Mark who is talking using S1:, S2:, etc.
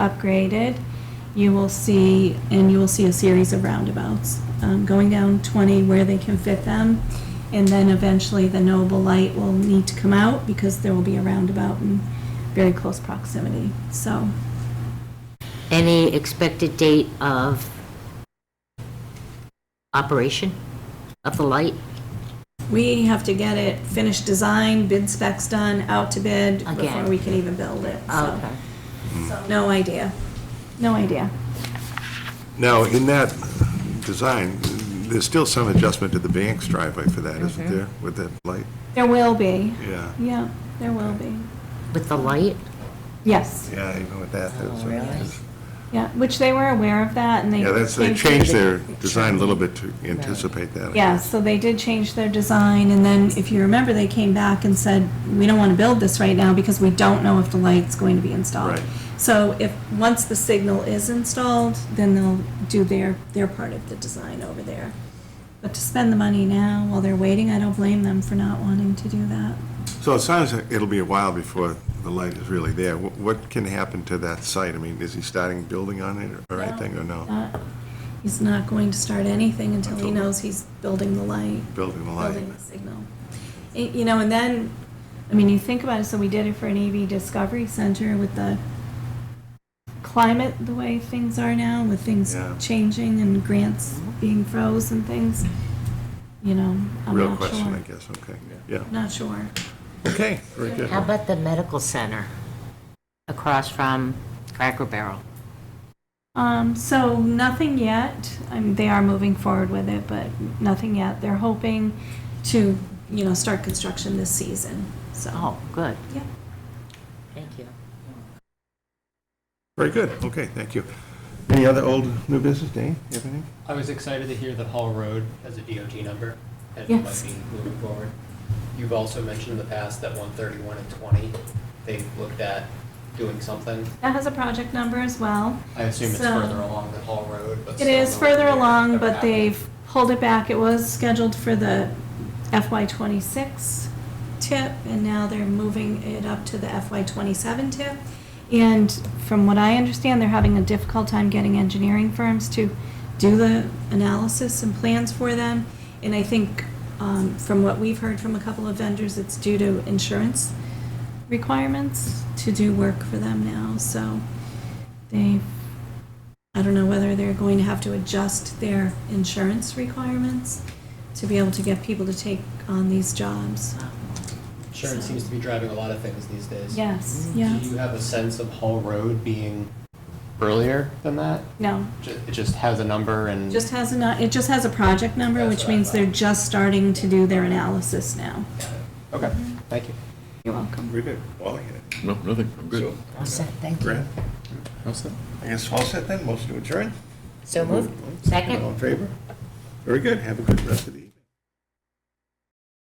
S1: upgraded, you will see, and you will see a series of roundabouts, um, going down 20 where they can fit them, and then eventually the Noble Light will need to come out because there will be a roundabout in very close proximity. So
S2: Any expected date of operation of the light?
S1: we have to get it finished design, bid specs done, out to bid before
S2: Again.
S1: we can even build it.
S2: Uh,
S1: So, so no idea. No idea.
S3: Now, in that design, there's still some adjustment to the Banks driveway for that, isn't
S1: Mm-hmm.
S3: there, with that light?
S1: There will be.
S3: Yeah.
S1: Yeah, there will be.
S2: With the light?
S1: Yes,
S3: Yeah, even with that. that's-
S2: Oh, really?
S1: yeah, which they were aware of that and they.
S3: Yeah, that's, they changed their design a little bit to anticipate that. I
S1: Yeah,
S3: guess.
S1: so they did change their design, and then, if you remember, they came back and said, we don't want to build this right now because we don't know if the light's going to be installed.
S3: Right.
S1: So if, once the signal is installed, then they'll do their, their part of the design over there. But to spend the money now while they're waiting, I don't blame them for not wanting to do that.
S3: So it sounds like it'll be a while before the light is really there. Wh- What can happen to that site? I mean, is he starting building on it or anything, or no?
S1: Not- He's not going to start anything until he knows he's building the light.
S3: Building the light?
S1: building the signal. Y- You know, and then, I mean, you think about it, so we did it for an EV Discovery Center with the climate, the way things are now, with things
S3: Yeah.
S1: changing and grants being froze and things, you know, I'm
S3: Real
S1: not
S3: question, I
S1: sure.
S3: guess, okay. Yeah,
S1: Not sure.
S3: okay, very good.
S2: How about the medical center across from Cracker Barrel?
S1: Um, so nothing yet. I mean, they are moving forward with it, but nothing yet. They're hoping to, you know, start construction this season, so.
S2: Oh, good.
S1: Yeah.
S2: Thank you.
S3: Very good, okay, thank you. Any other old, new business, Dane, you have anything?
S4: I was excited to hear that Hall Road has a DOT number and
S1: Yes.
S4: might be moving forward. You've also mentioned in the past that 131 and 20, they've looked at doing something.
S1: That has a project number as well.
S4: I assume it's
S1: So-
S4: further along than Hall Road, but.
S1: It
S4: still
S1: is
S4: nowhere
S1: further
S4: near
S1: along,
S4: ever
S1: but
S4: happened.
S1: they've pulled it back. It was scheduled for the FY twenty-six tip, and now they're moving it up to the FY twenty-seven tip. And from what I understand, they're having a difficult time getting engineering firms to do the analysis and plans for them. And I think, um, from what we've heard from a couple of vendors, it's due to insurance requirements to do work for them now, so they've I don't know whether they're going to have to adjust their insurance requirements to be able to get people to take on these jobs.
S4: Insurance seems to be driving a lot of things these days.
S1: Yes,
S4: Do
S1: yeah,
S4: you have a sense of Hall Road being earlier than that?
S1: no.
S4: Ju- It just has a number and.
S1: Just has a, it just has a project number,
S4: That's
S1: which
S4: what I
S1: means they're
S4: thought.
S1: just starting to do their analysis now.
S4: Okay, thank you.
S1: You're welcome.
S3: Very good. All I had.
S5: No, nothing, I'm good.
S2: All set, thank you.
S3: Brad? I guess all set then, motion to adjourn?
S2: So moved?
S3: All
S2: Second?
S3: in favor? Very good, have a good rest of the evening.